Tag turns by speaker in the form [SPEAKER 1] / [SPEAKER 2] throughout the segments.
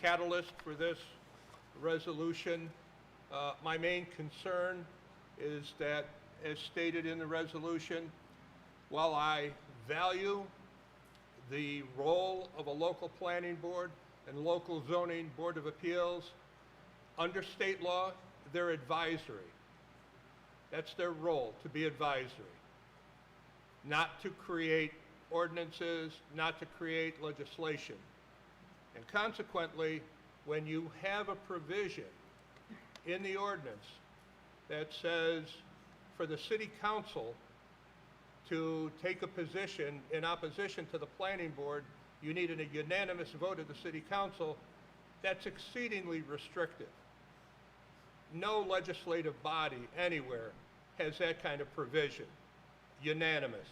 [SPEAKER 1] catalyst for this resolution. Uh, My main concern is that, as stated in the resolution, while I value the role of a local planning board and local zoning board of appeals, under state law, they're advisory. That's their role, to be advisory, not to create ordinances, not to create legislation. And consequently, when you have a provision in the ordinance that says for the city council to take a position in opposition to the planning board, you need a unanimous vote of the city council, that's exceedingly restrictive. No legislative body anywhere has that kind of provision, unanimous.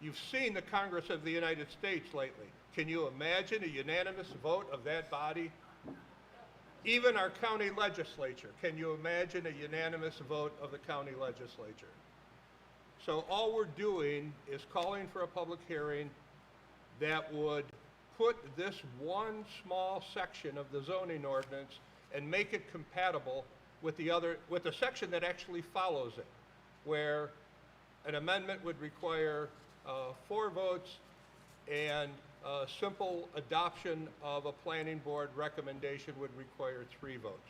[SPEAKER 1] You've seen the Congress of the United States lately. Can you imagine a unanimous vote of that body? Even our county legislature, can you imagine a unanimous vote of the county legislature? So all we're doing is calling for a public hearing that would put this one small section of the zoning ordinance and make it compatible with the other, with the section that actually follows it, where an amendment would require uh, four votes and uh, simple adoption of a planning board recommendation would require three votes.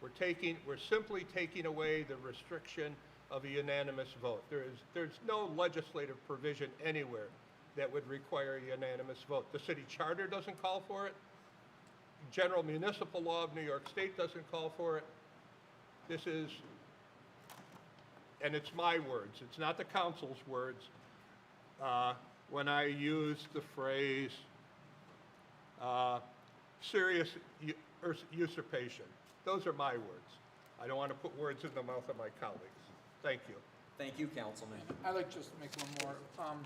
[SPEAKER 1] We're taking, we're simply taking away the restriction of a unanimous vote. There is, there's no legislative provision anywhere that would require a unanimous vote. The city charter doesn't call for it. General municipal law of New York State doesn't call for it. This is, and it's my words, it's not the council's words, uh, when I use the phrase uh, serious u- urs- usurpation. Those are my words. I don't want to put words in the mouth of my colleagues. Thank you.
[SPEAKER 2] Thank you, Councilman.
[SPEAKER 3] I'd like just to make one more. Um,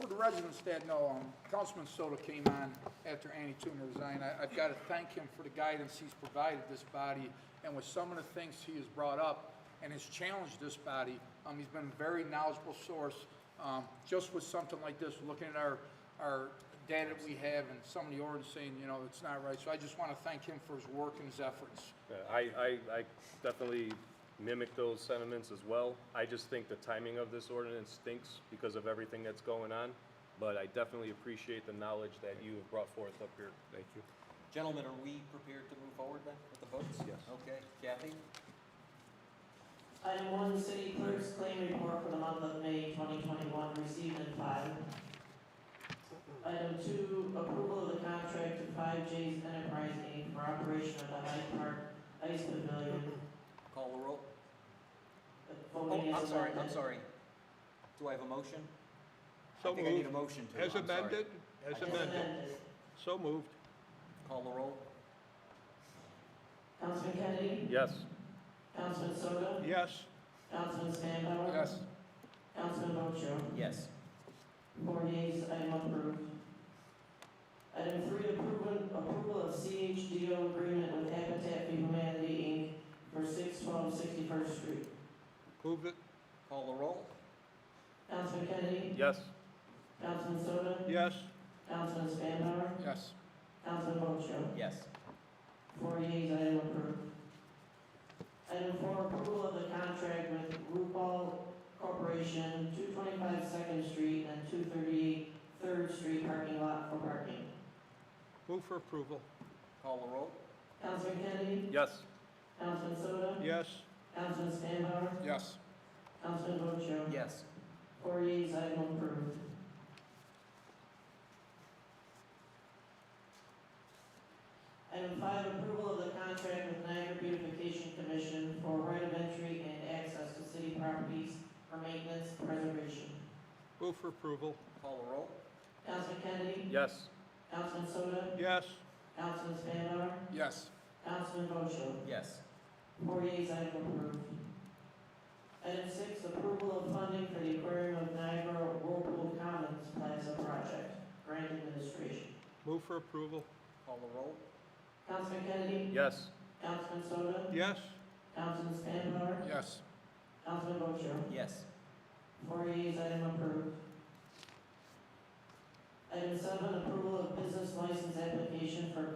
[SPEAKER 3] For the residents that know, um, Councilman Soto came on after Annie Toomer resigned. I- I've got to thank him for the guidance he's provided this body and with some of the things he has brought up and has challenged this body. Um, He's been a very knowledgeable source, um, just with something like this, looking at our, our data that we have and some of the orders saying, you know, it's not right. So I just want to thank him for his work and his efforts.
[SPEAKER 4] Yeah, I, I, I definitely mimic those sentiments as well. I just think the timing of this ordinance stinks because of everything that's going on, but I definitely appreciate the knowledge that you have brought forth up here. Thank you.
[SPEAKER 2] Gentlemen, are we prepared to move forward then with the votes? Yes. Okay, Kathy?
[SPEAKER 5] Item one, city clerk's claim report for the month of May 2021, received and filed. Item two, approval of the contract to Five J's Enterprise Inc. for operation of the Hyde Park Ice Pavilion.
[SPEAKER 2] Call the roll.
[SPEAKER 5] Uh, voting
[SPEAKER 2] Oh, I'm
[SPEAKER 5] is
[SPEAKER 2] sorry, I'm
[SPEAKER 5] amended.
[SPEAKER 2] sorry. Do I have a motion?
[SPEAKER 1] So
[SPEAKER 2] I think I need a
[SPEAKER 1] moved.
[SPEAKER 2] motion to, I'm
[SPEAKER 1] As
[SPEAKER 2] sorry.
[SPEAKER 1] amended, as
[SPEAKER 2] I
[SPEAKER 5] As
[SPEAKER 1] amended.
[SPEAKER 5] amended.
[SPEAKER 1] So moved.
[SPEAKER 2] Call the roll.
[SPEAKER 5] Councilman Kennedy?
[SPEAKER 4] Yes,
[SPEAKER 5] Councilman Soto?
[SPEAKER 1] Yes.
[SPEAKER 5] Councilman Spanbauer?
[SPEAKER 2] Uh,
[SPEAKER 3] Yes.
[SPEAKER 5] Councilman Ocho?
[SPEAKER 2] Yes.
[SPEAKER 5] Four yeas, item approved. Item three, approval, approval of CHDO agreement with Habitat for Humanity Inc. for 612 61st Street.
[SPEAKER 1] Move it.
[SPEAKER 2] Call the roll.
[SPEAKER 5] Councilman Kennedy?
[SPEAKER 4] yes,
[SPEAKER 5] Councilman Soto?
[SPEAKER 1] Yes.
[SPEAKER 5] Councilman Spanbauer?
[SPEAKER 3] Yes.
[SPEAKER 5] Councilman Ocho?
[SPEAKER 2] Yes.
[SPEAKER 5] Four yeas, item approved. Item four, approval of the contract with RuPaul Corporation, 225 Second Street and 238 Third Street parking lot for parking.
[SPEAKER 1] Move for approval.
[SPEAKER 2] Call the roll.
[SPEAKER 5] Councilman Kennedy?
[SPEAKER 4] yes,
[SPEAKER 5] Councilman Soto?
[SPEAKER 1] Yes.
[SPEAKER 5] Councilman Spanbauer?
[SPEAKER 3] Yes.
[SPEAKER 5] Councilman Rocho?
[SPEAKER 2] Yes.
[SPEAKER 5] Four yeas, item approved. Item five, approval of the contract with Niagara Beautification Commission for right of entry and access to city properties for maintenance and preservation.
[SPEAKER 1] Move for approval.
[SPEAKER 2] Call the roll.
[SPEAKER 5] Councilman Kennedy?
[SPEAKER 4] yes,
[SPEAKER 5] Councilman Soto?
[SPEAKER 1] Yes.
[SPEAKER 5] Councilman Spanbauer?
[SPEAKER 3] Yes.
[SPEAKER 5] Councilman Rocho?
[SPEAKER 2] Yes.
[SPEAKER 5] Four yeas, item approved. Item six, approval of funding for the Aquarium of Niagara Whirlpool Commons Plaza Project, grant administration.
[SPEAKER 1] Move for approval.
[SPEAKER 2] Call the roll.
[SPEAKER 5] Councilman Kennedy?
[SPEAKER 4] yes,
[SPEAKER 5] Councilman Soto?
[SPEAKER 1] Yes.
[SPEAKER 5] Councilman Spanbauer?
[SPEAKER 3] Yes.
[SPEAKER 5] Councilman Bocho?
[SPEAKER 2] Yes.
[SPEAKER 5] Four yeas, item approved. Item seven, approval of business license application for